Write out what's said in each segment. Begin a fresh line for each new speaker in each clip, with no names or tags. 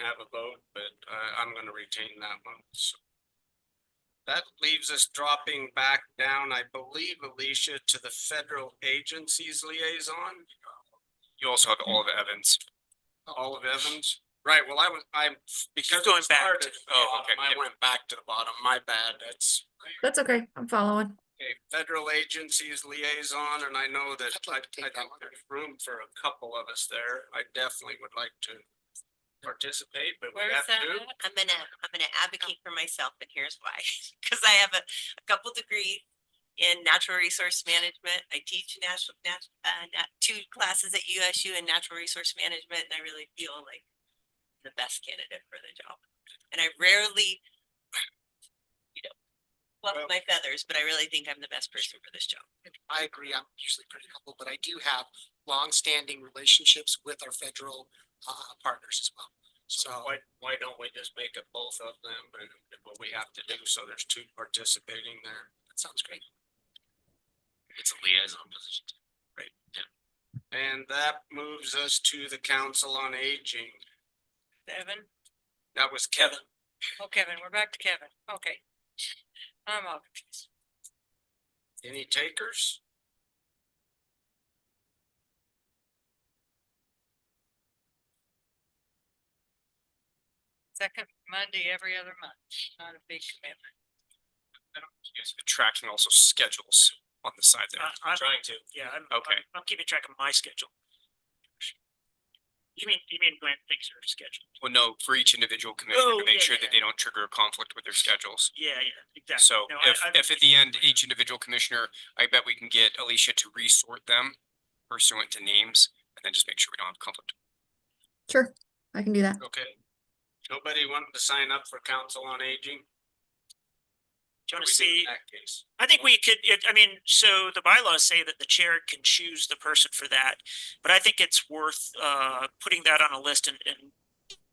have a vote, but I, I'm gonna retain that one, so. That leaves us dropping back down, I believe, Alicia, to the federal agencies liaison,
You also have Olive Evans.
Olive Evans. Right, well, I was, I'm, because I
Going back to-
started,
oh, okay,
I
yeah.
went back to the bottom, my bad, that's.
That's okay. I'm following.
a federal agencies liaison, and I know that
I'd
I,
like to take
I think
that one.
there's room for a couple of us there. I definitely would like to participate, but we
Where's
have
that?
to.
at? I'm gonna, I'm gonna
Oh.
advocate for myself and here's why. Cause I have a, a couple degrees in natural resource management. I teach national, nat, uh, nat, two classes at USU in natural resource management and I really feel like the best candidate for the job. And I rarely, you know,
Well-
fluff my feathers, but I really think I'm the best person for this job.
I agree, I'm usually pretty humble, but I do have longstanding relationships with our federal uh partners as well. So
Why, why don't we just make it both of them, and what we have to do, so there's two participating there.
that sounds great.
It's a liaison position. Right, yeah. And that moves us to the Council on Aging.
Evan?
That was Kevin.
Oh, Kevin, we're back to Kevin. Okay. I'm all confused.
Any takers?
Second Monday every other month, not a big commitment.
You guys have been tracking also schedules on the side there.
I- I'm
Trying to.
Yeah, I'm,
Okay.
I'm, I'm keeping track of my schedule. You mean, you mean when things are scheduled?
Well, no, for each individual commissioner, to
Uh-huh. Oh,
make sure
yeah, yeah.
that they don't trigger a conflict with their schedules.
Yeah, yeah, exactly.
So
No, I-
if,
I've-
if at the end, each individual commissioner, I bet we can get Alicia to resort them pursuant to names and then just make sure we don't have conflict.
Sure. I can do that.
Okay. Nobody wanted to sign up for Council on Aging?
Do you
What
want
do we
to
do
see?
in That case.
I think we could, it- I mean, so the bylaws say that the chair can choose the person for that, but I think it's worth, uh, putting that on a list and, and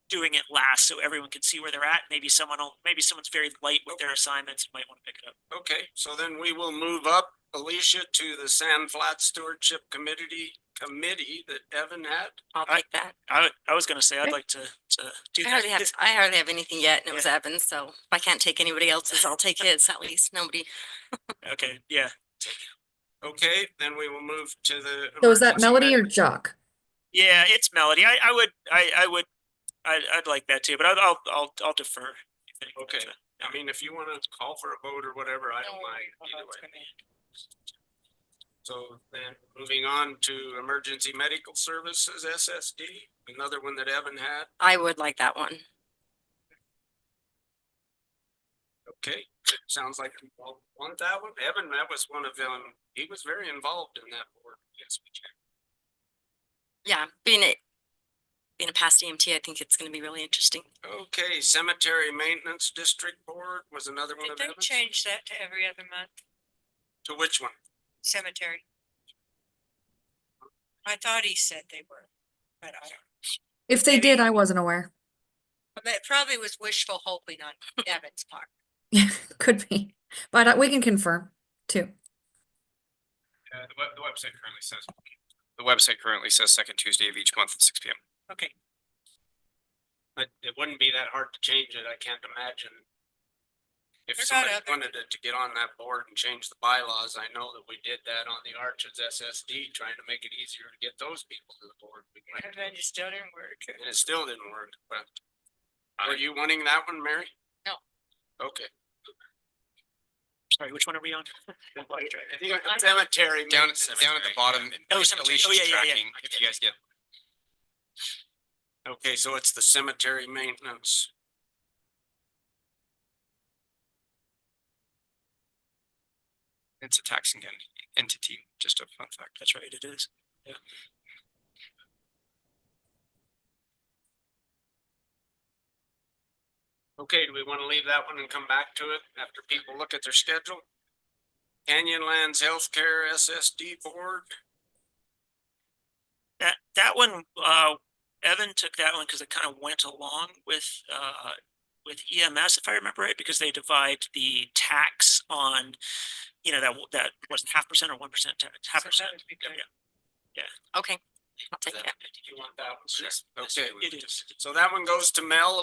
doing it last so everyone can see where they're at. Maybe someone will, maybe someone's very late with their assignments, and might want to pick it up.
Okay, so then we will move up Alicia to the Sand Flat Stewardship Committee, committee that Evan had.
I'll
I-
take that.
I, I was gonna say, I'd
Okay.
like to, to do
I hardly have,
that.
I hardly have anything yet and it was Evans, so if I can't take anybody else's, I'll take his, at least nobody.
Okay, yeah,
Okay, then we will move to the.
So is that
emergency
Melody or
manag-
Jock?
yeah, it's Melody. I, I would, I, I would, I, I'd like that too, but I'll, I'll, I'll, I'll defer. if anyone does
Okay.
that.
I mean, if you want to call for a vote or whatever, I don't
No,
mind
oh,
either
it's
way.
gonna be-
So then moving on to Emergency Medical Services, SSD, another one that Evan had.
I would like that one.
Okay, sounds like you all want that one. Evan, that was one of them. He was very involved in that board. Yes, we can.
Yeah, being a, being a past EMT, I think it's gonna be really interesting.
Okay, Cemetery Maintenance District Board was another one
Did
of
they
Evan's.
change that to every other month
To which one?
cemetery? I thought he said they were, but I don't.
If they did, I wasn't aware.
But it probably was wishful hoping on Evan's part.
Could be, but uh, we can confirm too.
Uh, the web, the website currently says. The website currently says second Tuesday of each month at six P M.
Okay,
But it wouldn't be that hard to change it. I can't imagine. If
They're not
somebody
other-
wanted it to get on that board and change the bylaws, I know that we did that on the Arches SSD, trying to make it easier to get those people to the board. We went-
Evan just still didn't work.
And it still didn't work, but. Are you wanting that one, Mary?
No.
Okay.
sorry, which one are we on?
I think Cemetery.
Down,
maintenance.
down at the bottom.
Oh, cemetery.
Alicia's
Oh, yeah, yeah, yeah.
tracking, If you guys get
Okay, so it's the cemetery maintenance.
It's a taxing en- entity, just a fun fact.
That's right, it is.
Okay, do we want to leave that one and come back to it after people look at their schedule? Canyonlands Healthcare SSD Board,
That, that one, uh, Evan took that one because it kind of went along with, uh, with EMS, if I remember right, because they divide the tax on, you know, that, that wasn't half percent or one percent tax, half
So that
percent.
would be
Yeah,
good.
yeah.
Okay, I'll take it.
You want that one?
Okay.
So that one goes to Mel